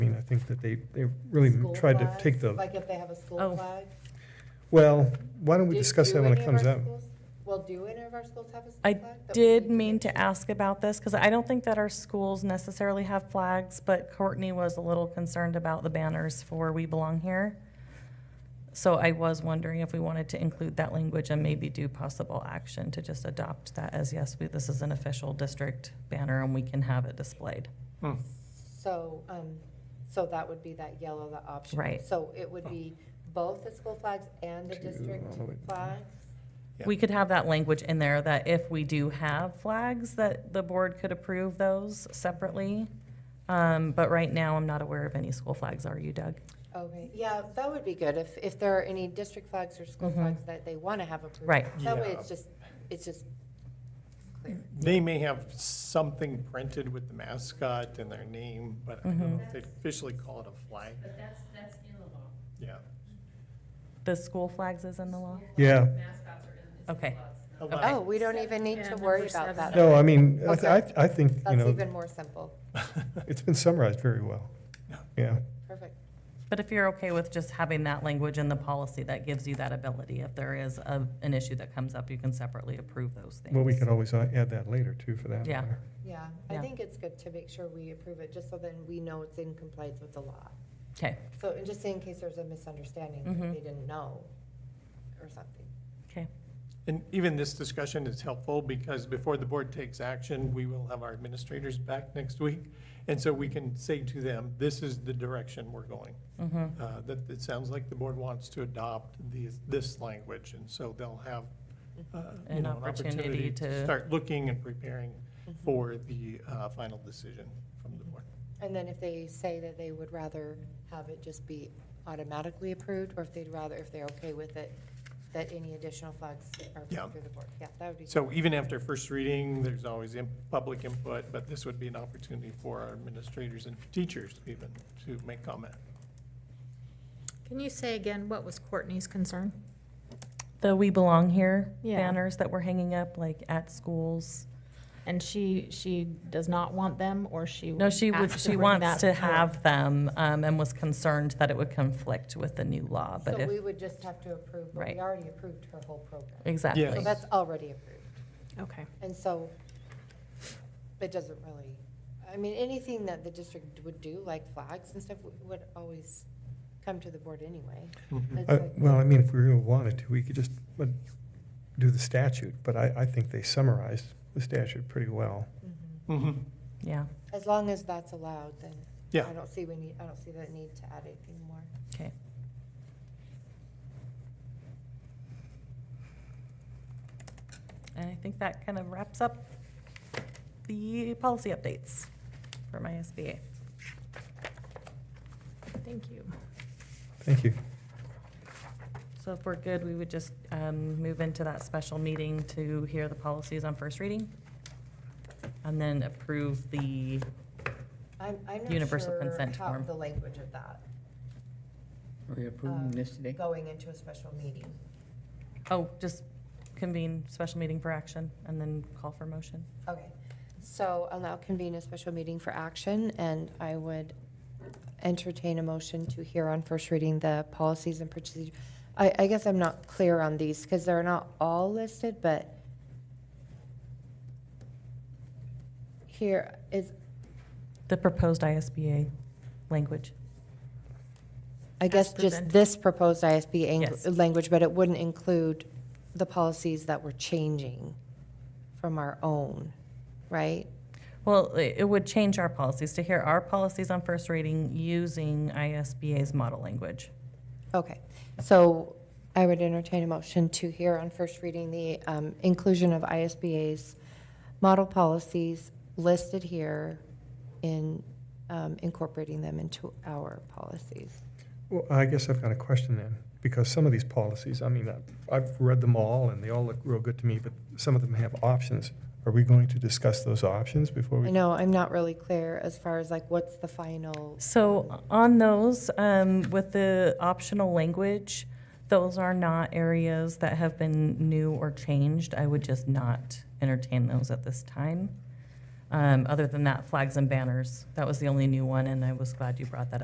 think that they, they really School tried to flags, take the, Like if they have a school Oh. flag? well, why don't we Do- discuss do that when any it of our comes up? schools- Well, do any of our schools have a school I flag? that we did need mean get? to ask about this, because I don't think that our schools necessarily have flags, but Courtney was a little concerned about the banners for We Belong Here. So I was wondering if we wanted to include that language and maybe do possible action to just adopt that as, yes, we, this is an official district banner and we can have it displayed. So, um, so that would be that yellow, the option. Right. So it would be both the school flags and the To district all the way- flags? Yeah. We could have that language in there that if we do have flags, that the board could approve those separately. Um, but right now, I'm not aware of any school flags. Are you, Doug? Okay, yeah, that would be good, if, if there are any district flags or school Mhm. flags that they want to have approved. Right. That way Yeah. it's just, it's just clear. They may have something printed with the mascot and their name, but I don't know if they officially call it a flag. But that's, that's in the law. Yeah. The school flags is in the law? Yeah. Mascots are in, it's in the Okay. laws. A Okay. lot. Oh, we don't even need Yeah, to number worry about seven. that. No, I mean, I, Okay. th- I th- I think, you That's know, even more simple, it's been summarized very well. Yeah, perfect. But if you're okay with just having that language in the policy, that gives you that ability. If there is a, an issue that comes up, you can separately approve those things. well, we could always uh, add that later too, for that Yeah. matter. Yeah, I Yeah. think it's good to make sure we approve it, just so then we know it's in compliance with the law. Okay, So, and just in case there's a misunderstanding, Mhm. that they didn't know, or something. okay. And even this discussion is helpful because before the board takes action, we will have our administrators back next week. And so we can say to them, this is the direction we're going. Mm-hmm. Uh, That it sounds like the board wants to adopt these, this language. And so they'll have, uh, you An know, an opportunity opportunity to- to start looking and preparing Mm-hmm. Mm-hmm. for the uh, final decision from the board. And then if they say that they would rather have it just be automatically approved, or if they'd rather, if they're okay with it, that any additional flags are Yeah. approved through the board, yeah, that would be. So even after first reading, there's always im- public input, but this would be an opportunity for our administrators and teachers even to make comment. Can you say again, what was Courtney's concern? The We Belong Here Yeah. banners that we're hanging up, like at schools. And she, she does not want them, or she? No, she would, asked she bring wants that to forward? have them, um, and was concerned that it would conflict with the new law, but So if, we would just have to approve, but Right. we already approved her whole program. exactly. So Yes. that's already approved. Okay. And so it doesn't really, I mean, anything that the district would do, like flags and stuff, would- would always come to the board anyway. It's Mm-hmm. Uh, like- Well, I mean, if we really wanted to, we could just uh, do the statute, but I, I think they summarized the statute pretty well. Mm-hmm. Mhm. Mhm. Yeah, As long as that's allowed, then I Yeah, don't see we need, I don't see the need to add anything more. okay. And I think that kind of wraps up the policy updates for my SBA. Thank you. Thank you. So if we're good, we would just um, move into that special meeting to hear the policies on first reading, and then approve the, I'm, I'm not Universal sure consent how form. the language of that, um, Are we approving this today? going into a special meeting. oh, just convene special meeting for action, and then call for motion. Okay, so I'll now convene a special meeting for action, and I would entertain a motion to hear on first reading the policies and procedures. I, I guess I'm not clear on these, because they're not all listed, but here is, The proposed ISBA language. I guess, just presented. this proposed ISB Yes. ang- language, but it wouldn't include the policies that we're changing from our own, right? Well, i- it would change our policies to hear our policies on first reading using ISBA's model language. Okay, so I would entertain a motion to hear on first reading the um, inclusion of ISBA's model policies listed here in um, incorporating them into our policies. Well, I guess I've got a question then, because some of these policies, I mean, I- I've read them all and they all look real good to me, but some of them have options. Are we going to discuss those options before I we? know, I'm not really clear as far as like, what's the final? So on those, um, with the optional language, those are not areas that have been new or changed. I would just not entertain those at this time. Um, Other than that, flags and banners, that was the only new one, and I was glad you brought that up.